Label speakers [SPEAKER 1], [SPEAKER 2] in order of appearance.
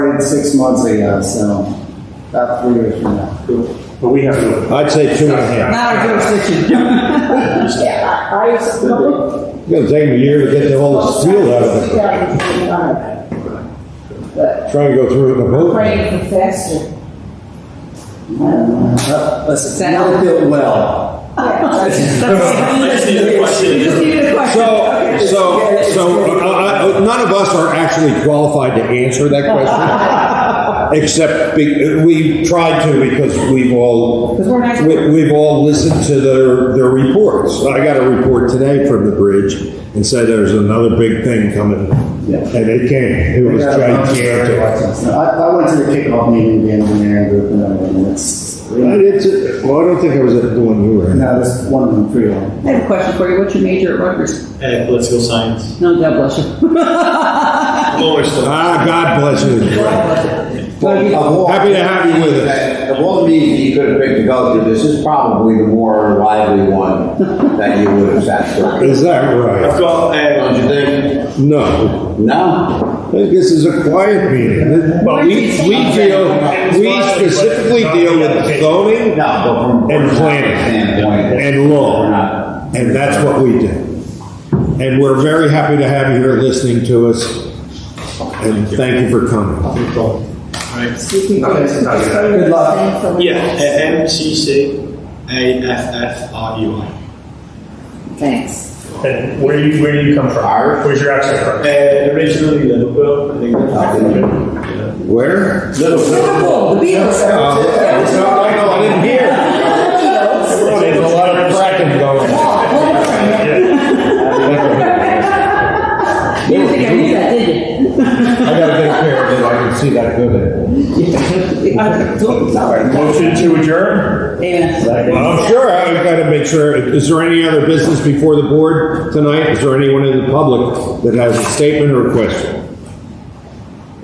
[SPEAKER 1] started six months ago, so about three years from now.
[SPEAKER 2] But we have to.
[SPEAKER 3] I'd say two and a half.
[SPEAKER 4] Not a jurisdiction.
[SPEAKER 5] Yeah, I, I used to.
[SPEAKER 3] It's gonna take them a year to get the whole field out of it.
[SPEAKER 5] it. But
[SPEAKER 3] Trying to go through it in a boat.
[SPEAKER 5] praying for faster.
[SPEAKER 1] Uh, Listen, not built well.
[SPEAKER 4] That's
[SPEAKER 6] the other question.
[SPEAKER 4] You just needed a question.
[SPEAKER 3] So, so, so, uh, uh, uh, none of us are actually qualified to answer that question. Except be- we tried to because we've all,
[SPEAKER 4] 'Cause we're not-
[SPEAKER 3] we- we've all listened to their, their reports. I got a report today from the bridge and said there's another big thing coming. And it came, it was gigantic.
[SPEAKER 1] I, I went to the kickoff meeting, with the engineering group, and everything. It's,
[SPEAKER 3] I
[SPEAKER 1] no,
[SPEAKER 3] didn't- well, I don't think I was at the one you were at.
[SPEAKER 1] this one of them, three of them.
[SPEAKER 4] I have a question for you. What's your major at Rutgers?
[SPEAKER 6] And Uh, political science.
[SPEAKER 4] No, God bless you.
[SPEAKER 6] Lower stuff.
[SPEAKER 3] Ah, God bless you. Happy to have you with us.
[SPEAKER 7] Of all the meetings you could have picked to go to, this is probably the more lively one that you would have sat through.
[SPEAKER 3] Is that right?
[SPEAKER 6] Well, uh,
[SPEAKER 7] Don't you think?
[SPEAKER 3] No.
[SPEAKER 7] No?
[SPEAKER 3] This is a quiet meeting.
[SPEAKER 2] But we,
[SPEAKER 3] We deal, we specifically deal with zoning
[SPEAKER 7] No, but from.
[SPEAKER 3] And planning.
[SPEAKER 7] Standpoint.
[SPEAKER 3] and law. And that's what we do. And we're very happy to have you here listening to us. And thank you for coming.
[SPEAKER 1] Good luck.
[SPEAKER 6] yeah, uh, MCCAFFRUI.
[SPEAKER 5] Thanks.
[SPEAKER 2] and where do you, where do you come from? Where's your accent
[SPEAKER 6] Uh,
[SPEAKER 2] from?
[SPEAKER 6] originally Liverpool, I think that's
[SPEAKER 3] Where?
[SPEAKER 4] Liverpool, the Beatles.
[SPEAKER 3] Uh, I didn't hear. There's a lot of cracking going on.
[SPEAKER 4] You didn't think I knew that, did
[SPEAKER 3] I got a big pair of it. I can see that good.
[SPEAKER 4] you? I'm sorry.
[SPEAKER 2] Motion to adjourn?
[SPEAKER 4] Amen.
[SPEAKER 3] Well, I'm sure I've got to make sure. Is there any other business before the board tonight? Is there anyone in the public that has a statement or a question?